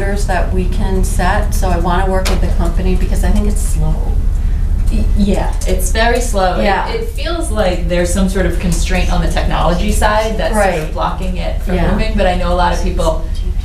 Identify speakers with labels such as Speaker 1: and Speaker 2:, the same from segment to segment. Speaker 1: parameters that we can set, so I want to work with the company because I think it's slow.
Speaker 2: Y- Yeah, it's very slow. It-
Speaker 1: Yeah.
Speaker 2: It feels like there's some sort of constraint on the technology side that's sort
Speaker 1: Right.
Speaker 2: of blocking it from
Speaker 1: Yeah.
Speaker 2: moving, but I know a lot of people,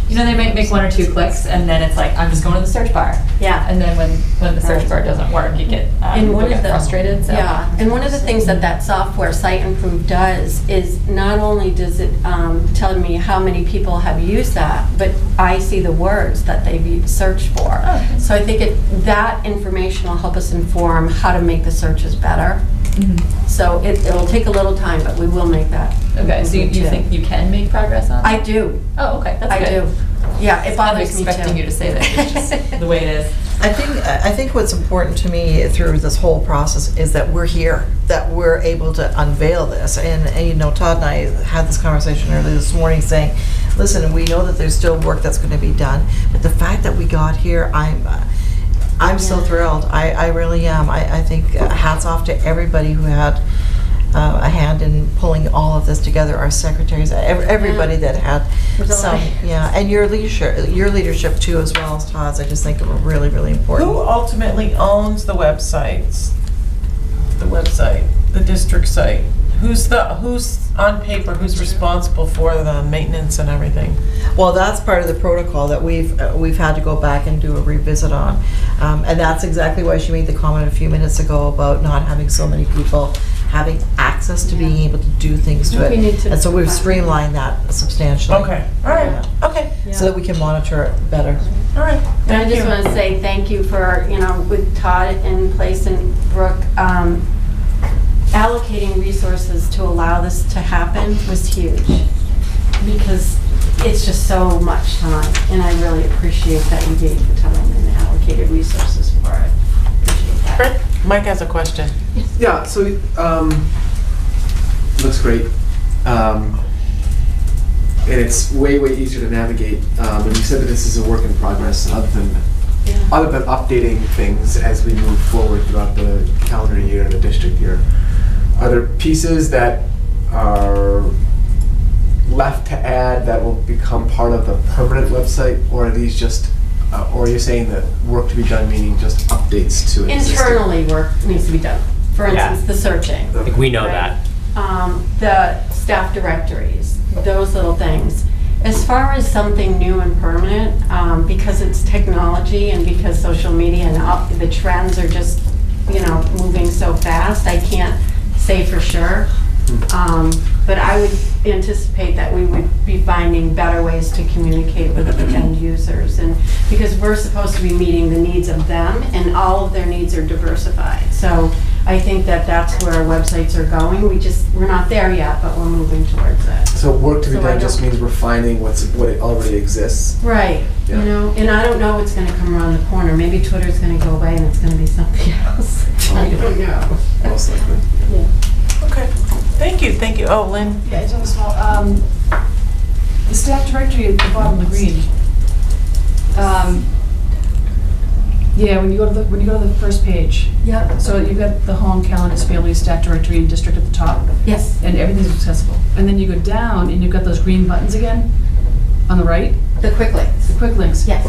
Speaker 2: you know, they might make one or two clicks and then it's like, I'm just going to the search bar.
Speaker 1: Yeah.
Speaker 2: And then when, when the search
Speaker 1: Right.
Speaker 2: bar doesn't work, you get, um,
Speaker 1: And one
Speaker 2: you
Speaker 1: of
Speaker 2: get
Speaker 1: the-
Speaker 2: frustrated, so.
Speaker 1: Yeah, and one of the things that that software Site Improve does is not only does it um, tell me how many people have used that, but I see the words that they've u- searched for.
Speaker 2: Oh, okay.
Speaker 1: So I think it, that information will help us inform how to make the searches better.
Speaker 2: Mhm.
Speaker 1: So it, it'll take a little time, but we will make that.
Speaker 2: Okay, so you, you
Speaker 1: improvement,
Speaker 2: think
Speaker 1: too.
Speaker 2: you can make progress on?
Speaker 1: I
Speaker 2: it?
Speaker 1: do,
Speaker 2: Oh, okay, that's
Speaker 1: I
Speaker 2: good.
Speaker 1: do. Yeah, it
Speaker 2: I'm
Speaker 1: bothers me too.
Speaker 2: expecting you to say that, it's just the way it is.
Speaker 3: I think, I think what's important to me through this whole process is that we're here, that we're able to unveil this. And, and, you know, Todd and I had this conversation earlier this morning saying, listen, we know that there's still work that's going to be done, but the fact that we got here, I'm, uh, I'm so
Speaker 1: Yeah.
Speaker 3: thrilled. I, I really am. I, I think uh, hats off to everybody who had uh, a hand in pulling all of this together, our secretaries, ev- everybody that had
Speaker 1: It was a
Speaker 3: some,
Speaker 1: lot.
Speaker 3: yeah, and your leadership, your leadership too, as well as Todd's, I just think were really, really important.
Speaker 4: Who ultimately owns the websites? The website, the district site? Who's the, who's on paper, who's responsible for the maintenance and everything?
Speaker 3: Well, that's part of the protocol that we've, uh, we've had to go back and do a revisit on. Um, And that's exactly why she made the comment a few minutes ago about not having so many people having access to being able to do things to
Speaker 1: I think we need
Speaker 3: it.
Speaker 1: to-
Speaker 3: And so we've streamlined that substantially.
Speaker 4: Okay, all right, okay,
Speaker 3: So that we can monitor it better.
Speaker 4: all right.
Speaker 1: And I
Speaker 4: Thank
Speaker 1: just
Speaker 4: you.
Speaker 1: want to say thank you for, you know, with Todd in place and Brooke, um, allocating resources to allow this to happen was huge. Because it's just so much time, and I really appreciate that you gave the time and allocated resources for it. Appreciate that.
Speaker 4: Mike has a question.
Speaker 5: Yeah, so, um, looks great. Um, and it's way, way easier to navigate. Um, and you said that this is a work in progress other than,
Speaker 1: Yeah.
Speaker 5: other than updating things as we move forward throughout the calendar year and the district year. Are there pieces that are left to add that will become part of the permanent website? Or are these just, uh, or you're saying that work to be done, meaning just updates to existing?
Speaker 1: Internally, work needs to be done. For
Speaker 5: Yeah.
Speaker 1: instance, the searching.
Speaker 5: Okay.
Speaker 6: Like, we know
Speaker 1: Right.
Speaker 6: that.
Speaker 1: um, the staff directories, those little things. As far as something new and permanent, um, because it's technology and because social media and up, the trends are just, you know, moving so fast, I can't say for sure. Um, but I would anticipate that we would be finding better ways to communicate with the end users and, because we're supposed to be meeting the needs of them and all of their needs are diversified. So I think that that's where websites are going. We just, we're not there yet, but we're moving towards it.
Speaker 5: So work to be
Speaker 1: So I
Speaker 5: done just
Speaker 1: don't-
Speaker 5: means refining what's, what it already exists.
Speaker 1: Right, you
Speaker 5: Yeah.
Speaker 1: know, and I don't know what's gonna come around the corner. Maybe Twitter's gonna go away and it's gonna be something else.
Speaker 7: Oh,
Speaker 1: I don't know.
Speaker 5: Most likely.
Speaker 4: Okay, thank you, thank you. Oh, Lynn,
Speaker 7: Yeah, it's on the small, um, the staff directory at the bottom of the green. Um, Yeah, when you go to the, when you go to the first page,
Speaker 1: Yep.
Speaker 7: so you've got the home, calendars, families, staff directory, and district at the top,
Speaker 1: Yes,
Speaker 7: and everything's accessible. And then you go down, and you've got those green buttons again, on the right,
Speaker 1: the quick links.
Speaker 7: the quick links.
Speaker 1: Yes.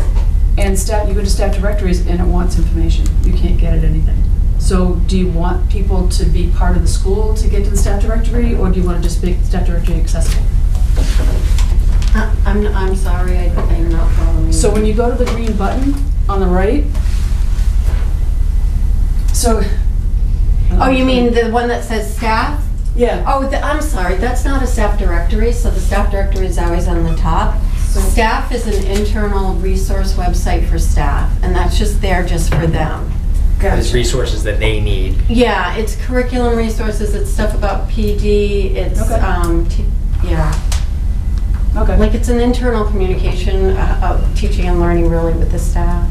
Speaker 7: And staff, you go to staff directories, and it wants information. You can't get it anything. So do you want people to be part of the school to get to the staff directory, or do you want to just make the staff directory accessible?
Speaker 1: Uh, I'm, I'm sorry, I- I'm not following.
Speaker 7: So when you go to the green button on the right, so.
Speaker 1: Oh, you mean the one that says staff?
Speaker 7: Yeah.
Speaker 1: Oh, the- I'm sorry, that's not a staff directory, so the staff directory is always on the top. Staff is an internal resource website for staff, and that's just there just for them.
Speaker 6: There's resources that they need.
Speaker 1: Yeah, it's curriculum resources, it's stuff about PD, it's,
Speaker 7: Okay.
Speaker 1: um, t- yeah.
Speaker 7: Okay.
Speaker 1: Like, it's an internal communication uh, of teaching and learning really with the staff.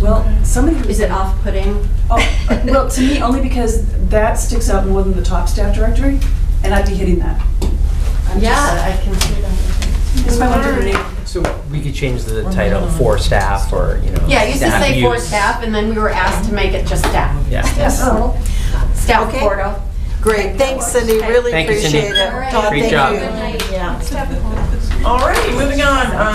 Speaker 7: Well, somebody. who-
Speaker 1: Is it off-putting?
Speaker 7: Oh, well, to me, only because that sticks out more than the top staff directory, and I'd be hitting that. I'm just-
Speaker 1: Yeah, I can see that.
Speaker 7: It's my wonder.
Speaker 6: So we could change the title for staff or, you know.
Speaker 1: Yeah, it used to say for
Speaker 6: use.
Speaker 1: staff, and then we were asked to make it just staff.
Speaker 6: Yeah.
Speaker 3: Yes.
Speaker 1: Staff
Speaker 3: Okay.
Speaker 1: portal.
Speaker 3: Great, thanks Cindy, really
Speaker 6: Thank you, Cindy.
Speaker 3: appreciate it.
Speaker 1: All right.
Speaker 3: Todd,
Speaker 6: Great
Speaker 3: thank
Speaker 6: job.
Speaker 3: you.
Speaker 1: Good night.
Speaker 3: Yeah.
Speaker 4: all right, moving on. Uh,